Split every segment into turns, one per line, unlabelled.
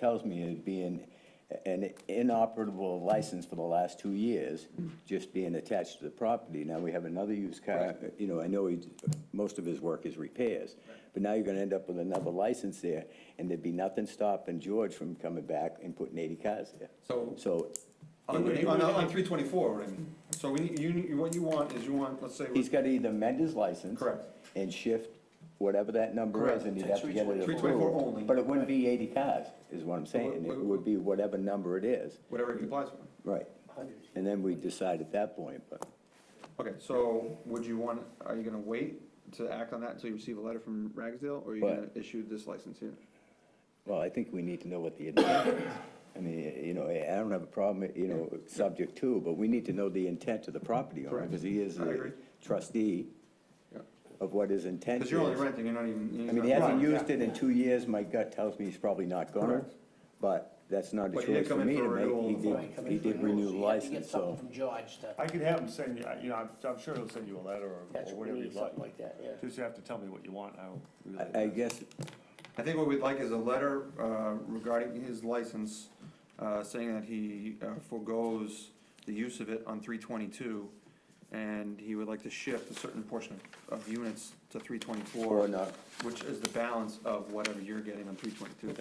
tells me it'd be an, an inoperable license for the last two years, just being attached to the property. Now we have another used car, you know, I know he, most of his work is repairs, but now you're gonna end up with another license there, and there'd be nothing stopping George from coming back and putting eighty cars there.
So-
So
On, on, on three twenty-four, what I mean, so we, need- you, need- what you want is you want, let's say,
he's
three
gotta either amend his license.
Correct.
And shift whatever that number is,
Correct.
and he'd have to get it approved.
twenty-four only,
But it wouldn't be eighty cars, is what I'm saying, it would be whatever number it is.
whatever it complies with.
Right, and then we decide at that point, but
Okay, so would you want, are you gonna wait to act on that until you receive a letter from Ragsdale, or are you
What?
gonna issue this license here?
Well, I think we need to know what the intent is. I mean, you know, I don't have a problem, you know, subject to, but we need to know the intent of the property owner,
Correct.
because he is
I
a
agree.
trustee
Yeah.
of what his intent
Cause
is.
you're only renting, you're not even.
I mean, he hasn't used it in two years, my gut tells me he's probably not gonna,
Correct.
but that's not a
But he did
choice for
come in
me
for
to
renewal
make.
of
He
the
did, he did renew the license, so.
From George to,
I could have him send you, you know, I'm, I'm sure he'll send you a letter or
that's
or
what
whatever
we
you'd
need,
like.
something like that, yeah.
Just have to tell me what you want, I'll. relay
I, I
that.
guess,
I think what we'd like is a letter uh, regarding his license, uh, saying that he uh, forgoes the use of it on three twenty-two, and he would like to shift a certain portion of of units to three
or
twenty-four,
not,
which is the balance of whatever you're getting on three twenty-two.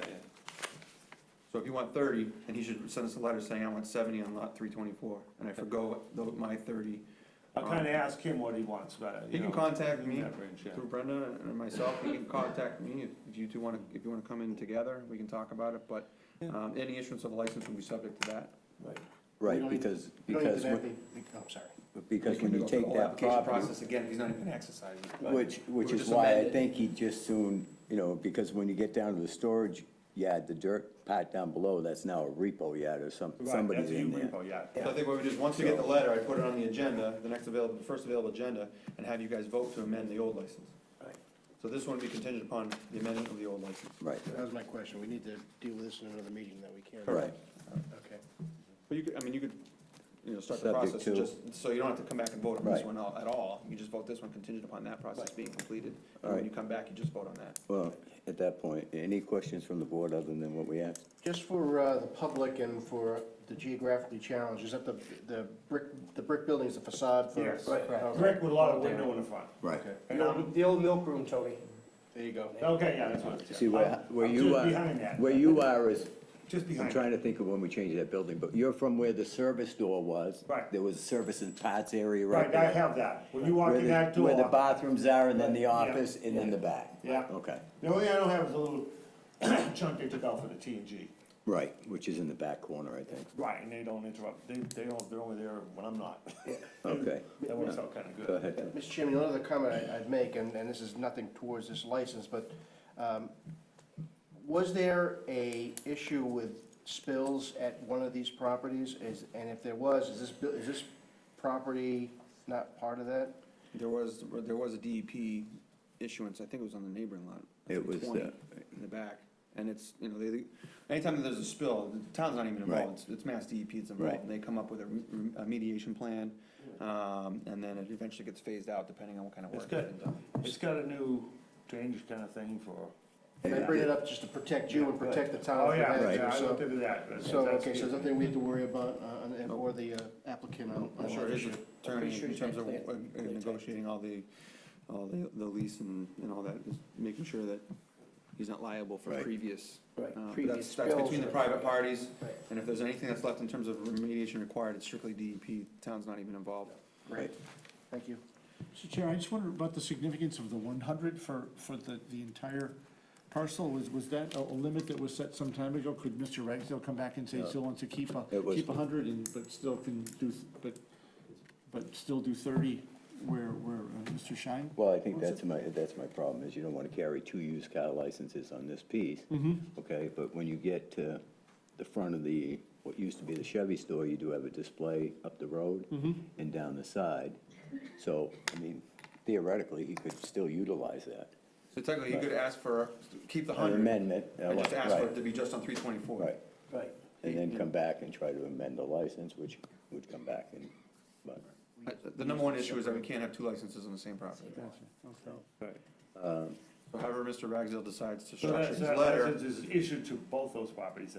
So if you want thirty, then he should send us a letter saying, I want seventy on lot three twenty-four, and I forgo the- my thirty
I'll kinda ask him what he wants, but.
He
you
can
know,
contact
in
me
that range, yeah.
through Brenda and myself, you can contact me if- if you two wanna, if you wanna come in together, we can talk about it, but, um, any issuance of a license will be subject to that.
right, because,
You don't need
because,
to have
when-
the- I'm sorry.
We
because
can
when
do
you
a
take
whole
that
application
property.
Process again, he's not even exercising.
Which, which
We're
is
just
why I
amended.
think he just soon, you know, because when you get down to the storage yard, the dirt pad down below, that's now a repo yard or some,
Right,
somebody's
that's you
in there.
repo, yeah.
So I think what we do is, once we get the letter, I put it on the agenda, the next available, the first available agenda, and have you guys vote to amend the old license.
Right.
So this one would be contingent upon the amendment of the old license.
Right,
That was my question, we need to deal with this in another meeting that we can.
right.
Okay.
But you could, I mean, you could, you know, start the
Subject
process,
to-
just, so you don't have to come back and vote on this
Right.
one al- at all. You just vote this one contingent upon that process
Right.
being completed. And
Alright.
when you come back, you just vote on that.
Well, at that point, any questions from the board other than what we asked?
Just for uh, the public and for the geographically challenged, is that the, the brick, the brick building's the facade for?
Yes,
Okay.
brick with a lot of window in the front.
Right.
And I'm-
The old milk room, Tony. There you go.
Okay, yeah, that's what.
See, where,
I'm-
where
I'm
you
just
are,
Behind that.
where you are is,
Just
I'm
behind.
trying to think of when we changed that building, but you're from where the service door was.
Right.
There was a service and parts area right
Right, I
there.
have that. When you walk
Where
in
the,
that door.
where the bathrooms are and then the
Right, yeah.
office and then the back.
Yeah.
Okay,
The only thing I don't have is a little chunk they took out for the T and G.
right, which is in the back corner, I think.
Right, and they don't interrupt, they, they don't, they're only there when I'm not.
Okay,
That works out kinda good.
go ahead. Tom.
Mr. Chairman, another comment I- I'd make, and, and this is nothing towards this license, but um, was there a issue with spills at one of these properties? Is, and if there was, is this, bu- is this property not part of that?
There was, there was a DEP issuance, I think it was on the neighboring lot.
It was,
320,
uh,
In the back, and it's, you know, they, anytime that there's a spill, the town's not even
Right.
involved, it's, it's mass DEP that's
Right.
involved. They come up with a re- a mediation plan, um, and then it eventually gets phased out depending on what kind of
It's
work. has
good.
been done.
It's got a new change kinda thing for.
And I bring it up just to protect you and protect the town.
Oh,
from
yeah,
that,
Right.
yeah, I
so-
looked into that. That's-
So,
that's
okay,
good.
so there's nothing we have to worry about, uh, on- and- or the uh, applicant on.
I'm
on
sure
that
his
issue.
attorney,
sure
in
he's
terms
got
of
clear-
uh, uh, negotiating all the, all the, the lease and, and all that, is making sure that he's not liable for
Right.
previous.
Right,
uh, that's-
previous
That's between
spills
the
or-
private parties,
Right.
and if there's anything that's left in terms of remediation required, it's strictly DEP, town's not even involved.
Great, thank you.
Mr. Chair, I just wondered about the significance of the one hundred for, for the, the entire parcel, was, was that a, a limit that was set some time ago? Could Mr. Ragsdale come back and say he still wants to keep a,
It was-
keep a hundred and, but still can do, th- but, but still do thirty where, where uh, Mr. Shine?
Well, I think that's my, that's my problem, is you don't want to carry two used car licenses on this piece. Okay, but when you get to the front of the, what used to be the Chevy store, you do have a display up the road and down the side. So, I mean, theoretically, he could still utilize that.
So technically, you could ask for, keep the
An
hundred.
amendment, uh,
And just ask for it
right,
to be just on three twenty-four.
right.
Right.
And then come back and try to amend the license, which would come back and, but,
Uh, The number one issue is that we can't have two licenses on the same property.
Okay.
Right.
So however Mr. Ragsdale decides to
So
structure
that's,
his
that
letter.
license is issued to both those properties then?